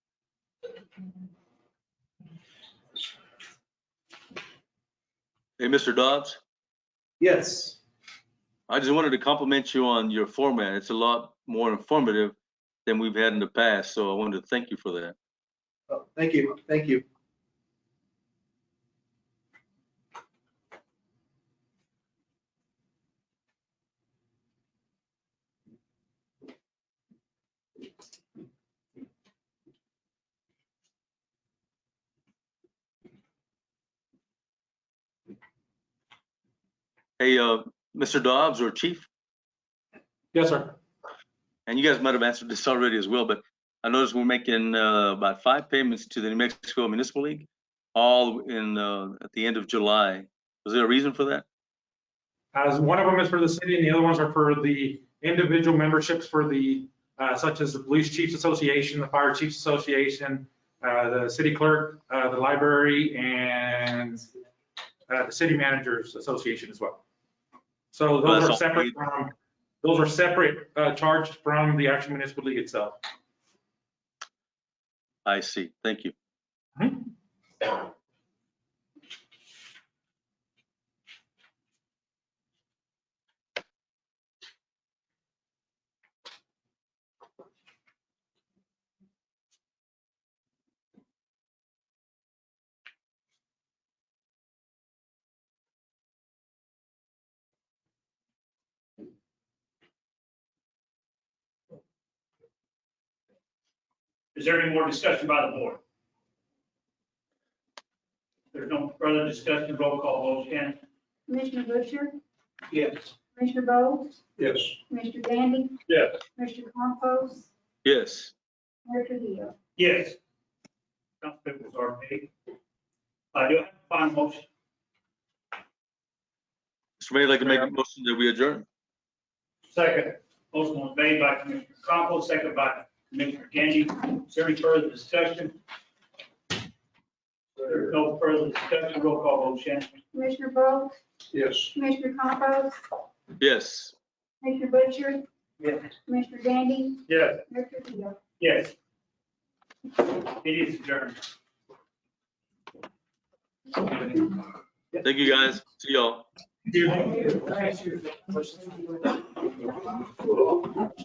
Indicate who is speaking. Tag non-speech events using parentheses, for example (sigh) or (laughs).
Speaker 1: Hey, Mr. Dobbs,
Speaker 2: Yes.
Speaker 1: I just wanted to compliment you on your format. It's a lot more informative than we've had in the past, so I wanted to thank you for that.
Speaker 2: Oh, Thank you, thank you.
Speaker 1: Hey, uh, Mr. Dobbs or Chief,
Speaker 3: Yes, sir.
Speaker 1: and you guys might have answered this (laughs) already as well, but I noticed we're making uh, about five payments to the New Mexico Municipal League, all in, uh, at the end of July. Was there a reason for that?
Speaker 3: As one of them is for the city and the other ones are for the individual memberships for the, uh, such as the Police Chiefs Association, the Fire Chiefs Association, uh, the city clerk, uh, the library, and uh, the City Managers Association as well. So those are
Speaker 1: That's all.
Speaker 3: separate from, those are separate uh, charged from the actual municipal league itself.
Speaker 1: I see. Thank you.
Speaker 3: Hmm?
Speaker 4: Is there any more discussion by the board? There's no further discussion, roll call vote, Shannon?
Speaker 5: Commissioner Busher,
Speaker 4: Yes.
Speaker 5: Commissioner Bowles,
Speaker 2: Yes.
Speaker 5: Commissioner Gandy,
Speaker 4: Yes.
Speaker 5: Commissioner Compost,
Speaker 1: Yes,
Speaker 5: Mayor Trivio.
Speaker 4: Yes. Councilmembers are made. Uh, do I have a final motion?
Speaker 1: Mr. Mayor, I'd like to make a
Speaker 3: Mayor.
Speaker 1: motion that we adjourn.
Speaker 4: Second. Motion was made by Commissioner Compost, second by Commissioner Gandy. Is there any further discussion? There's no further discussion, roll call vote, Shannon?
Speaker 5: Commissioner Bowles,
Speaker 2: Yes.
Speaker 5: Commissioner Compost,
Speaker 1: Yes,
Speaker 5: Commissioner Busher,
Speaker 4: Yes.
Speaker 5: Commissioner Gandy,
Speaker 4: Yes.
Speaker 5: Mayor Trivio.
Speaker 4: Yes. It is adjourned.
Speaker 1: thank you, guys. See y'all.
Speaker 2: Thank you.